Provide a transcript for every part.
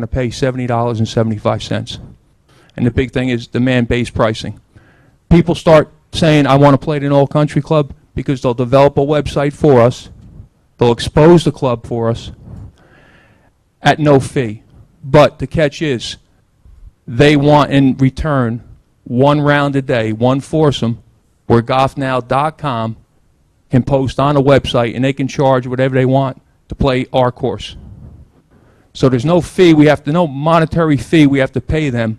to pay $70.75. And the big thing is demand-based pricing. People start saying, "I want to play at an all-country club," because they'll develop a website for us, they'll expose the club for us at no fee. But the catch is, they want in return one round a day, one foursome, where golfnow.com can post on a website, and they can charge whatever they want to play our course. So there's no fee, we have to, no monetary fee we have to pay them,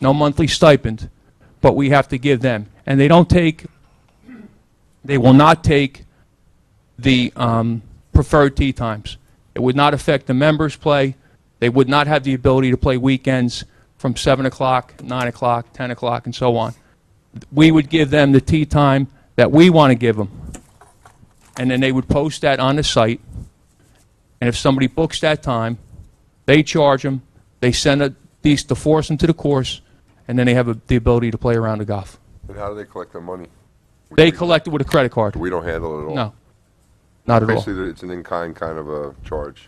no monthly stipend, but we have to give them. And they don't take, they will not take the um, preferred tee times. It would not affect the members' play. They would not have the ability to play weekends from 7 o'clock, 9 o'clock, 10 o'clock, and so on. We would give them the tee time that we want to give them. And then they would post that on the site. And if somebody books that time, they charge them, they send a, these, to force them to the course, and then they have a- the ability to play around the golf. And how do they collect their money? They collect it with a credit card. We don't handle it at all. No, not at all. Basically, it's an in-kind kind of a charge.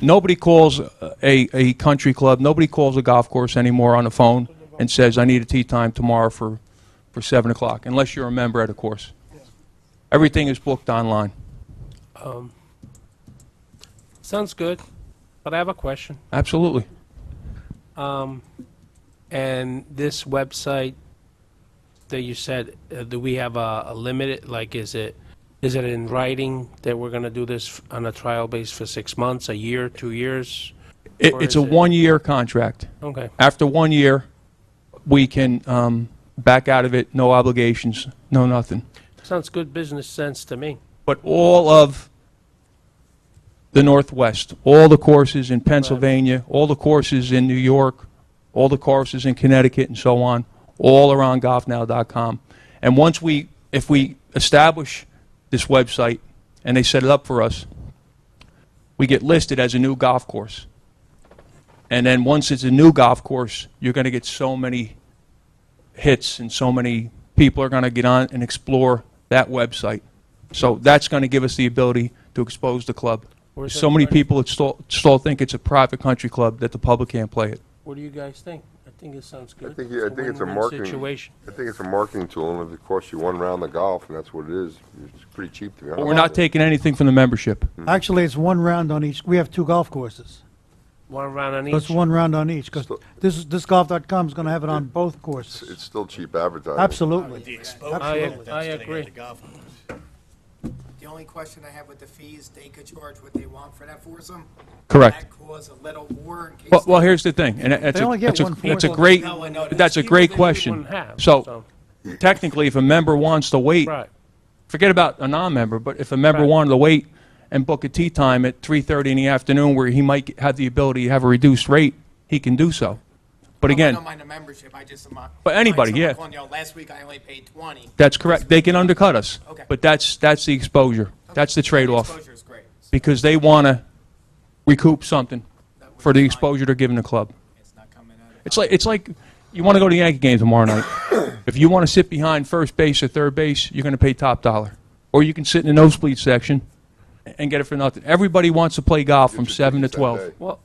Nobody calls uh, a, a country club, nobody calls a golf course anymore on the phone and says, I need a tee time tomorrow for, for 7 o'clock, unless you're a member at a course. Everything is booked online. Sounds good, but I have a question. Absolutely. Um, and this website that you said, uh, do we have a, a limited, like, is it, is it in writing that we're gonna do this f- on a trial base for six months, a year, two years? It, Or it's is a it- one-year contract. Okay, After one year, we can um, back out of it, no obligations, no nothing. sounds good business sense to me. But all of the Northwest, all the courses in Pennsylvania, all the courses in New York, all the courses in Connecticut and so on, all are on golfnow.com. And once we, if we establish this website and they set it up for us, we get listed as a new golf course. And then once it's a new golf course, you're going to get so many hits and so many people are going to get on and explore that website. So that's going to give us the ability to expose the club. Where's So many everybody- people that still, still think it's a private country club that the public can't play it. What do you guys think? I think it sounds good. think you- I think it's a win-win marketing- Situation. I think it's a marketing tool, and if it costs you one round of golf, and that's what it is, it's pretty cheap to be honest. But we're not taking anything from the membership. Mm-hmm. Actually, it's one round on each. We have two golf courses. One round on So it's each. one round on each, because So- this, this golf.com is going to have it on both It's uh, courses. it's still cheap advertising. The Absolutely. exposure I- that's I gonna get agree. the golf course. The only question I have with the fees, they could charge what they want for that foursome. Correct. That cause a little war in case. Well, well, they- here's the thing, and that's They a, only get that's a, one that's a fourth. great, No, I know that. that's a Fewer great than we question. wouldn't have, So so- technically, if a member wants to wait, Right, forget about a non-member, but if a member Right. wanted to wait and book a tea time at 3:30 in the afternoon where he might have the ability to have a reduced rate, he can do so. But I again, don't mind the membership, I just. am, uh, But anybody, like yeah. someone calling, you know, Last week I only paid twenty. that's correct, they can undercut us. Okay. But that's, that's the exposure, that's the trade-off, Exposure is great. So because they want to recoup something that would for the be fine. exposure they're giving the club. It's not coming out of- It's like, it's like, you want to go to the Yankee game tomorrow night. If you want to sit behind first base or third base, you're going to pay top dollar. Or you can sit in the nosebleed section and get it for nothing. Everybody wants to play golf from should do 7 to this that 12. day. well,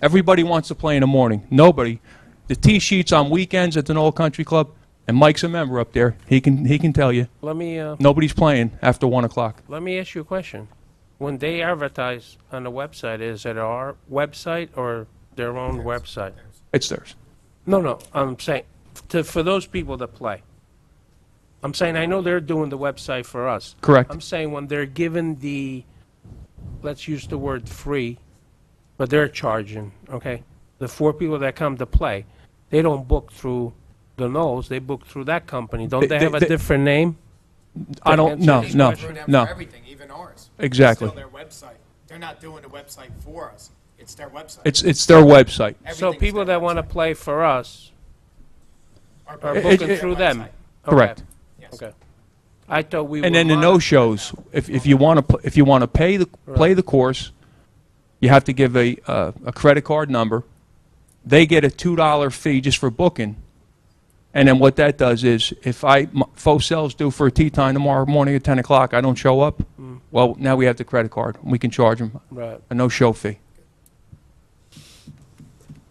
Everybody wants to play in the morning. Nobody. The tee sheets on weekends at the Knoll Country Club, and Mike's a member up there. He can he can tell you let me, uh, nobody's playing after one o'clock. Let me ask you a question. When they advertise on the website, is it our website or their own website? It's theirs. No, no, I'm saying, to, for those people that play. I'm saying, I know they're doing the website for us. Correct. I'm saying when they're given the, let's use the word free, but they're charging, okay? The four people that come to play, they don't book through the nose, they book through that company. Don't They- they they- have a they- different name? I don't. answer No. is No. They screw them for No. Everything, even ours. Exactly. It's still their website. They're not doing the website for us. It's their website. It's it's their website. So Everything's people their that want to website. play for us Our are members it- booking their it- through them. website. Okay. Correct. Yes. Okay. I thought we were. And then the mono- no shows. If if you want to if you want to pay the play the course, you have to give a uh, a credit card number. They get a two dollar fee just for booking. And then what that does is, if I m- faux sales due for a tea time tomorrow morning at ten o'clock, I don't show up. Well, now we have the credit card. We can charge them Right. a no show fee.